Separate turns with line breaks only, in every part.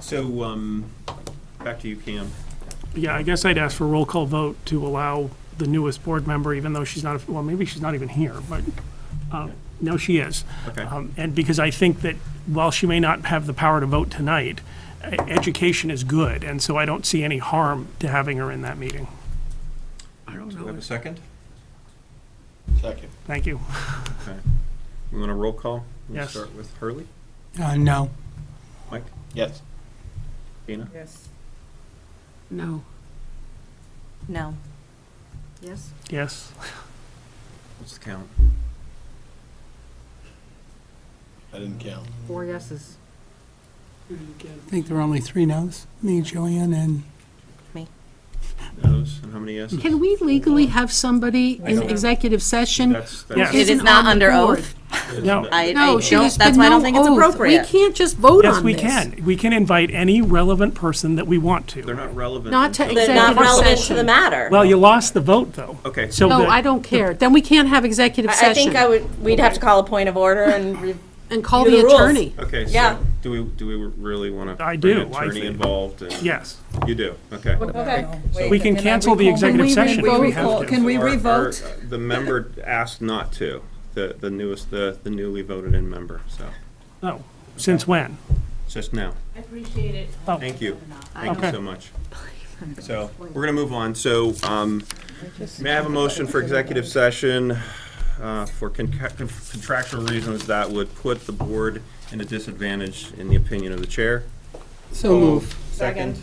So, um, back to you, Cam.
Yeah, I guess I'd ask for a roll call vote to allow the newest board member, even though she's not, well, maybe she's not even here, but, uh, no, she is.
Okay.
Um, And because I think that while she may not have the power to vote tonight, e- education is good, and so I don't see any harm to having her in that meeting. I don't
Do we have
know.
a second?
Second.
Thank you.
Okay. We want a roll call? We'll
Yes.
Start with Hurley,
Uh, no.
Mike,
Yes.
Dana,
Yes.
No.
No. Yes?
Yes?
what's the count?
I didn't count.
Four yeses.
I think there were only three no's. Me, Joanne, and
Mm-hmm.
Those, and how many yeses?
Can we legally have somebody
I
in
don't-
executive session?
That's,
Yes.
that's.
It
It
Isn't
is not
on the
under
board.
oath.
No.
I, I
No,
don't,
she has
that's
been
why I don't
no
think it's
oath.
appropriate.
We can't just vote on this.
Yes, we can. We can invite any relevant person that we want
They're
to.
not relevant.
Not to
until-
They're not
Executive
relevant to
session.
the matter.
Well, you lost the vote, though.
Okay.
So
No,
the-
I don't care. Then we can't have executive
I I
session.
think I would, we'd have to call a point of order and re-
And call
do
the
the rules.
attorney.
Okay,
Yeah.
so do we, do we really want to?
I do, I
Attorney
think.
involved and.
Yes.
You do, okay.
Okay.
We can cancel the executive
Can we
session if we have to.
Can we
Or- or,
revote?
uh, The member asked not to, the, the newest, the, the newly voted in member, so,
No. Since when?
just now.
Appreciate it.
Oh.
Thank you. Thank you
Okay.
so much. So, we're gonna move on. So, um, may I have a motion for executive session, uh, for conca- contractual reasons that would put the board in a disadvantage in the opinion of the chair?
so move.
Second.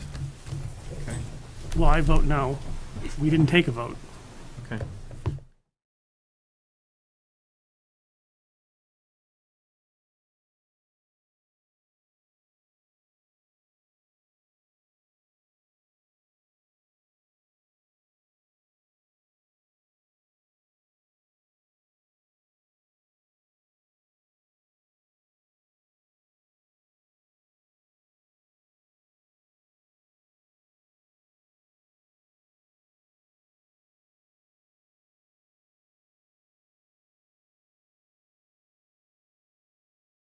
Well, I vote no. We didn't take a vote.
Okay.